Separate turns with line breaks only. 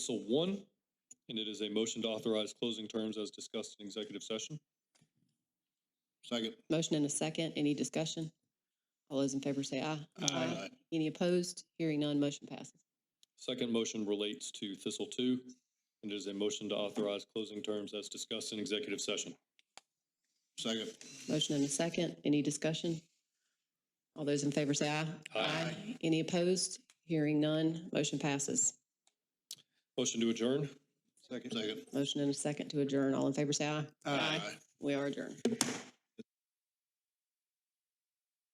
So one, and it is a motion to authorize closing terms as discussed in executive session.
Second.
Motion and a second. Any discussion? All those in favor say aye.
Uh,
Any opposed? Hearing none, motion passes.
Second motion relates to Thistle Two, and it is a motion to authorize closing terms as discussed in executive session.
Second.
Motion and a second. Any discussion? All those in favor say aye.
Aye.
Any opposed? Hearing none, motion passes.
Motion to adjourn.
Second. Second.
Motion and a second to adjourn. All in favor say aye. We are adjourned.